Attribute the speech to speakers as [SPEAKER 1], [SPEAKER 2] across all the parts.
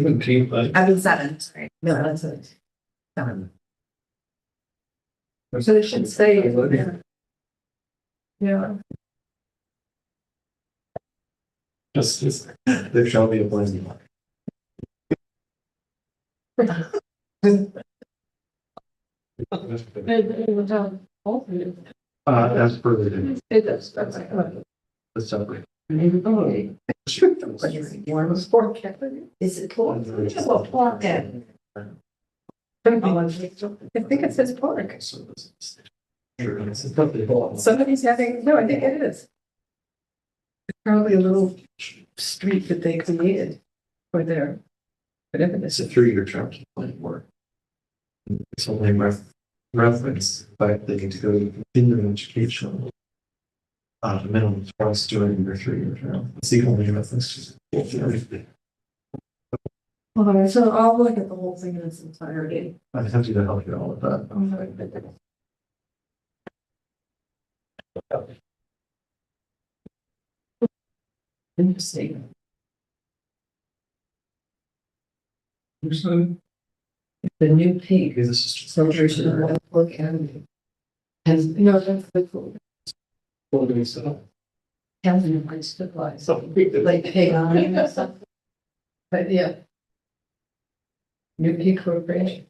[SPEAKER 1] Seventeenth, I
[SPEAKER 2] I mean, seven, sorry.
[SPEAKER 3] No, that's it.
[SPEAKER 2] Seven.
[SPEAKER 3] So it should say.
[SPEAKER 1] Absolutely.
[SPEAKER 3] Yeah,
[SPEAKER 1] just, just, there shall be a blessing. Uh,
[SPEAKER 3] it, it would have all three of them.
[SPEAKER 1] as per the,
[SPEAKER 3] It does, that's like. oh,
[SPEAKER 1] the separate.
[SPEAKER 2] Warm as Is it pork? Which is what pork is.
[SPEAKER 3] I think it says pork. Somebody's having, no, I think it is. It's Probably a little street that they created for their, whatever
[SPEAKER 1] It's
[SPEAKER 3] this
[SPEAKER 1] a
[SPEAKER 3] is.
[SPEAKER 1] three-year term to play for. It's only ref- reference, but they need to go to continuing education. Uh, minimum twice during your three-year term. It's the only reference. to-
[SPEAKER 3] All right, so I'll look at the whole thing in its entirety.
[SPEAKER 1] I'm happy to help you all with that.
[SPEAKER 3] I'm sorry, but that's- Interesting. The new peak
[SPEAKER 1] Maybe this is just.
[SPEAKER 3] celebration of Oak Avenue. And, no, that's the cool,
[SPEAKER 1] Well, doing so.
[SPEAKER 3] Avenue, I stood by, so
[SPEAKER 1] So.
[SPEAKER 3] like pagan or something. But yeah. New peak corporation.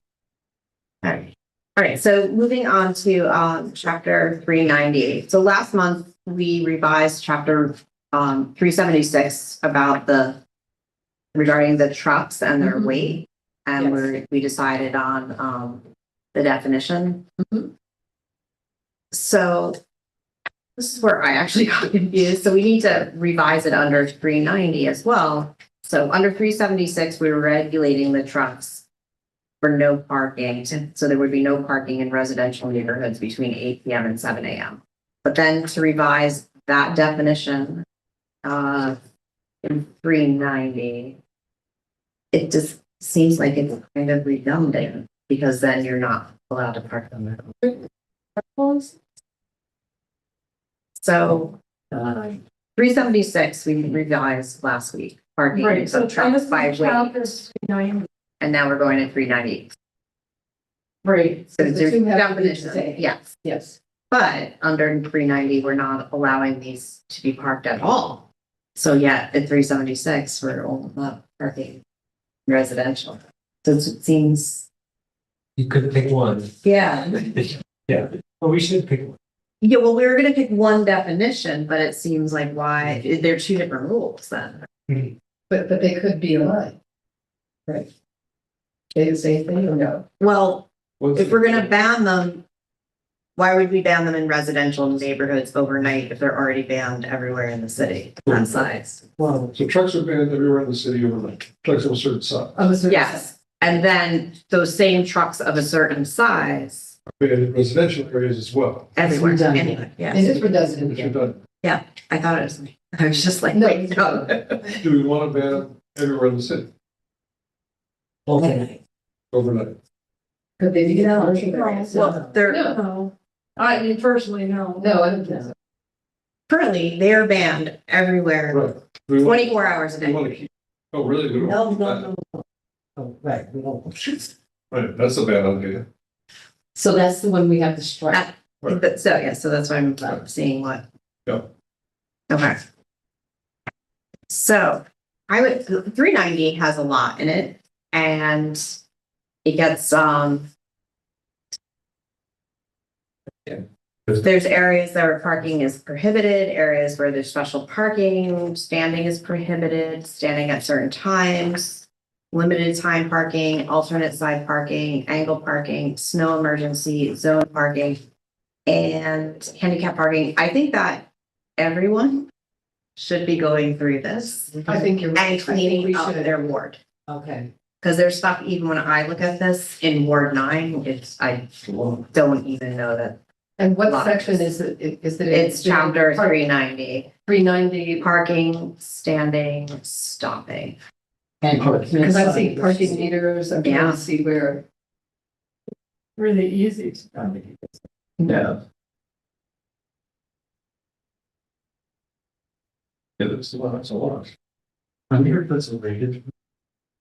[SPEAKER 2] Alright, alright, so moving on to um chapter three ninety. So last month, we revised chapter um three seventy-six about the. Regarding the trucks and their
[SPEAKER 3] Mhm.
[SPEAKER 2] weight, and
[SPEAKER 3] Yes.
[SPEAKER 2] we're, we decided on um the definition.
[SPEAKER 3] Mhm.
[SPEAKER 2] So. This is where I actually got confused, so we need to revise it under three ninety as well. So under three seventy-six, we were regulating the trucks for no parking, so there would be no parking in residential neighborhoods between eight PM and seven AM. But then to revise that definition, uh, in three ninety, it just seems like it's kind of redundant, because then you're not allowed to park on the, so Three seventy-six, we revised last week, parking
[SPEAKER 3] Right, so
[SPEAKER 2] of trucks by weight,
[SPEAKER 3] chapters nine.
[SPEAKER 2] and now we're going to three ninety.
[SPEAKER 3] Right.
[SPEAKER 2] So there's
[SPEAKER 3] two have to be the
[SPEAKER 2] definition,
[SPEAKER 3] same.
[SPEAKER 2] yes,
[SPEAKER 3] Yes.
[SPEAKER 2] but under three ninety, we're not allowing these to be parked at all. So yet, at three seventy-six, we're all about parking residential, so it seems,
[SPEAKER 4] You could pick one.
[SPEAKER 2] yeah.
[SPEAKER 4] Yeah, well, we should pick one.
[SPEAKER 2] Yeah, well, we were gonna pick one definition, but it seems like why, they're two different rules then.
[SPEAKER 3] But, but they could be aligned. Right. They the same thing or no?
[SPEAKER 2] Well,
[SPEAKER 4] What's
[SPEAKER 2] If we're gonna ban them, why would we ban them in residential neighborhoods overnight if they're already banned everywhere in the city on size?
[SPEAKER 1] Wow, so trucks are banned everywhere in the city overnight, trucks of a certain size.
[SPEAKER 3] Of a certain size.
[SPEAKER 2] Yes, and then those same trucks of a certain size
[SPEAKER 1] banned in residential areas as well.
[SPEAKER 2] everywhere,
[SPEAKER 3] Redundant.
[SPEAKER 2] anyway,
[SPEAKER 3] It
[SPEAKER 2] yes.
[SPEAKER 3] is redundant.
[SPEAKER 1] If you're done,
[SPEAKER 2] I thought it was me. I was just like,
[SPEAKER 3] No.
[SPEAKER 2] wait, no.
[SPEAKER 1] do we want to ban them everywhere in the city
[SPEAKER 2] Well,
[SPEAKER 1] overnight?
[SPEAKER 3] Could they be?
[SPEAKER 2] No.
[SPEAKER 3] No,
[SPEAKER 2] they're,
[SPEAKER 5] I mean, personally, no.
[SPEAKER 3] I don't think so.
[SPEAKER 2] currently, they are banned everywhere,
[SPEAKER 1] Right. Do we want-
[SPEAKER 2] twenty-four hours a
[SPEAKER 1] We
[SPEAKER 2] day.
[SPEAKER 1] want to keep, oh, really? We don't
[SPEAKER 5] No,
[SPEAKER 1] want
[SPEAKER 5] no,
[SPEAKER 1] that.
[SPEAKER 5] no.
[SPEAKER 4] Oh, Right, we don't.
[SPEAKER 1] Right, that's a bad idea.
[SPEAKER 3] So that's the one we have to strike.
[SPEAKER 1] Right.
[SPEAKER 2] But, so, yeah, so that's why I'm uh, seeing what.
[SPEAKER 1] Yeah.
[SPEAKER 2] Okay. So I would, three ninety has a lot in it and it gets, um.
[SPEAKER 1] Yeah.
[SPEAKER 2] There's areas that where parking is prohibited, areas where there's special parking, standing is prohibited, standing at certain times. Limited time parking, alternate side parking, angle parking, snow emergency, zone parking and handicap parking. I think that everyone should be going through this
[SPEAKER 3] I think you're. right. I
[SPEAKER 2] and
[SPEAKER 3] think
[SPEAKER 2] cleaning
[SPEAKER 3] we
[SPEAKER 2] up
[SPEAKER 3] should.
[SPEAKER 2] their ward.
[SPEAKER 3] Okay.
[SPEAKER 2] Because there's stuff, even when I look at this in Ward nine, it's, I don't even know that.
[SPEAKER 3] And what
[SPEAKER 2] Lots.
[SPEAKER 3] section is it, is it? in?
[SPEAKER 2] It's chapter three ninety,
[SPEAKER 3] Three ninety.
[SPEAKER 2] parking, standing, stopping.
[SPEAKER 3] Because I see parking meters, I'm trying
[SPEAKER 2] Yeah.
[SPEAKER 3] to see where.
[SPEAKER 5] Really easy to find.
[SPEAKER 3] No.
[SPEAKER 1] Yeah, that's a lot, that's a lot. I'm here, that's a rated.